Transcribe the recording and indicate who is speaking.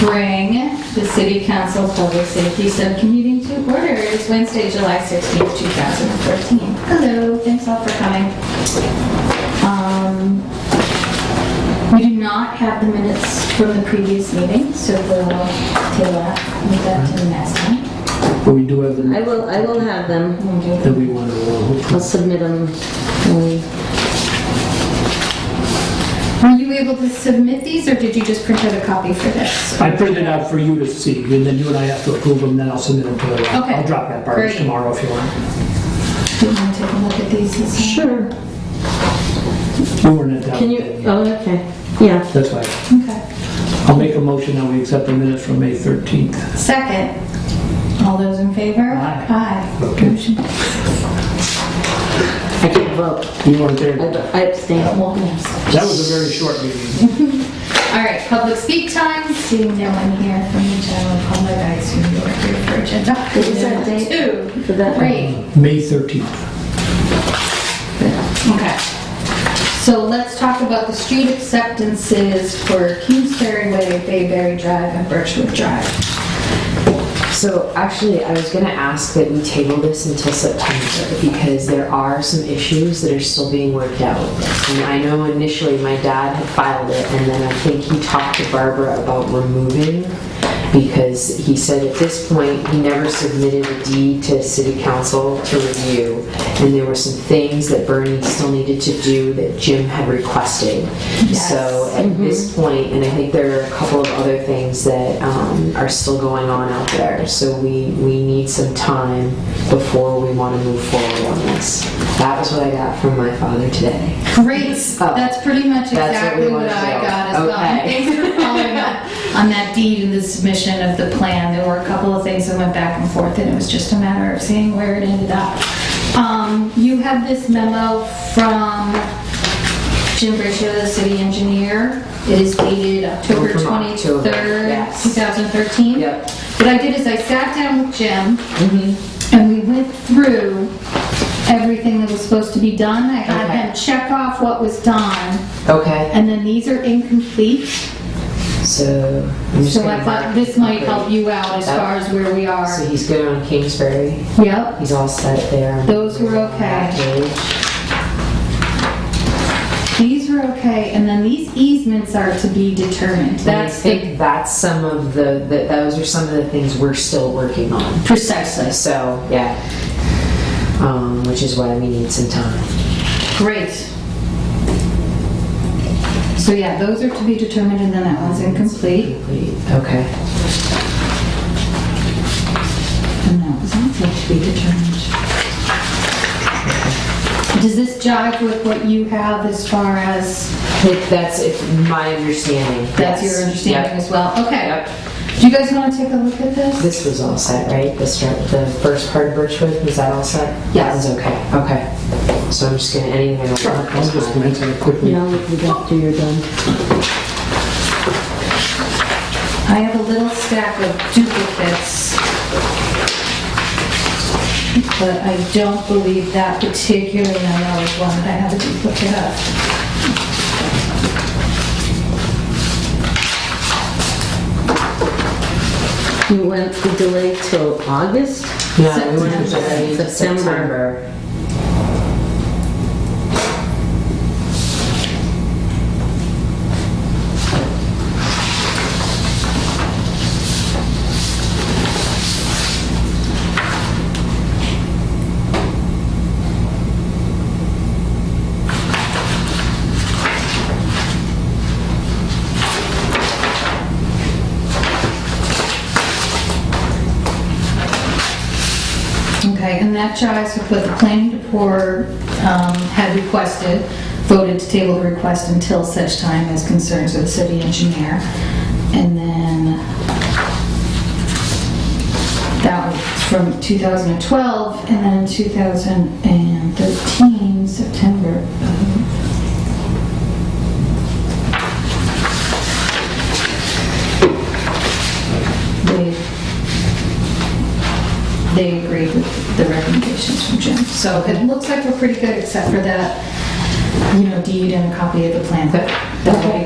Speaker 1: bring the City Council Public Safety Subcommittee to order. It's Wednesday, July 16th, 2014. Hello, thanks all for coming. Um, We do not have the minutes from the previous meeting, so we'll table that, move that to the next time.
Speaker 2: But we do have the
Speaker 3: I
Speaker 2: note
Speaker 3: will, I will have them.
Speaker 1: We'll do
Speaker 2: that we want to roll.
Speaker 3: I'll submit them. when we-
Speaker 1: Were you able to submit these, or did you just print out a copy for this?
Speaker 2: I printed out for you to see, and then you and I have to approve them, then I'll submit them to the,
Speaker 1: Okay.
Speaker 2: I'll drop that part
Speaker 1: Great.
Speaker 2: tomorrow if you want.
Speaker 1: Do you want to take a look at these? this time?
Speaker 3: Sure.
Speaker 2: You weren't at that.
Speaker 3: Can you,
Speaker 2: meeting.
Speaker 3: oh, okay, yeah.
Speaker 2: That's why.
Speaker 1: Okay.
Speaker 2: I'll make a motion that we accept the minutes from May 13th.
Speaker 1: Second. All those in favor?
Speaker 2: Aye.
Speaker 1: Aye.
Speaker 2: Okay.
Speaker 1: Motion
Speaker 3: I did vote.
Speaker 2: You weren't there.
Speaker 3: I
Speaker 2: That
Speaker 3: I abstained.
Speaker 2: was a very short meeting.
Speaker 1: All right, public speak time. Seeing no one here from the general public, I assume you're here for agenda.
Speaker 3: What is that date
Speaker 1: Two.
Speaker 3: for that?
Speaker 1: Great,
Speaker 2: May 13th.
Speaker 1: okay. So let's talk about the street acceptances for Kingsbury Way, Bayberry Drive, and Birchwood Drive.
Speaker 4: So actually, I was gonna ask that we table this until September because there are some issues that are still being worked out. And I know initially my dad had filed it and then I think he talked to Barbara about removing because he said at this point, he never submitted a deed to city council to review. And there were some things that Bernie still needed to do that Jim had requested. So
Speaker 1: Yes.
Speaker 4: at this point, and I think there are a couple of other things that um, are still going on out there. So we, we need some time before we want to move forward on this. That was what I got from my father today.
Speaker 1: Great,
Speaker 4: Oh.
Speaker 1: that's pretty much
Speaker 4: That's what we
Speaker 1: exactly what
Speaker 4: wanna
Speaker 1: I
Speaker 4: show.
Speaker 1: got as well. And
Speaker 4: Okay.
Speaker 1: Thanks for following up on that deed and the submission of the plan. There were a couple of things that went back and forth, and it was just a matter of seeing where it ended up. Um, You have this memo from Jim Briscio, the city engineer. It is dated October
Speaker 4: From October,
Speaker 1: 23rd,
Speaker 4: yes.
Speaker 1: 2013.
Speaker 4: Yep.
Speaker 1: What I did is I sat down with Jim, Mm-hmm. and we went through everything that was supposed to be done. I had
Speaker 4: Okay.
Speaker 1: him check off what was done,
Speaker 4: Okay,
Speaker 1: and then these are incomplete.
Speaker 4: so. I'm just
Speaker 1: So I
Speaker 4: gonna
Speaker 1: thought
Speaker 4: mark-
Speaker 1: this might help you out as far as where we are.
Speaker 4: So he's good on Kingsbury.
Speaker 1: Yep.
Speaker 4: He's all set there.
Speaker 1: Those were okay. These are okay, and then these easements are to be determined.
Speaker 4: That's, I
Speaker 1: That's the
Speaker 4: think that's some of the, the- those are some of the things we're still working on.
Speaker 1: precisely.
Speaker 4: So, yeah. Um, which is why we need some time.
Speaker 1: Great. So yeah, those are to be determined, and then that one's incomplete,
Speaker 4: Okay.
Speaker 1: and that was also to be determined. Does this jive with what you have as far as
Speaker 4: If That's if my understanding.
Speaker 1: That's
Speaker 4: yes.
Speaker 1: your understanding
Speaker 4: Yep.
Speaker 1: as well? Okay.
Speaker 4: Yep.
Speaker 1: Do you guys want to take a look at this?
Speaker 4: This was all set, right? The start, the first part of Birchwood, was that all set? That
Speaker 1: Yes.
Speaker 4: was okay, okay. So I'm just gonna, anything I don't want.
Speaker 2: I'll just glance at it quickly.
Speaker 3: Yeah, we got to, you're done.
Speaker 1: I have a little stack of duplicates. But I don't believe that particular memo is one that I have a duplicate of.
Speaker 3: You went the delay till August?
Speaker 4: Yeah, we went
Speaker 3: September.
Speaker 4: to the
Speaker 3: September.
Speaker 4: September.
Speaker 1: Okay, and that jives with what the planning board um, had requested, voted to table the request until such time as concerns with the city engineer. And then that was from 2012, and then 2013, September, um, they, they agreed with the recommendations from Jim. So it looks like we're pretty good, except for that, you know, deed and a copy of the plan.
Speaker 4: Okay.
Speaker 1: That'll be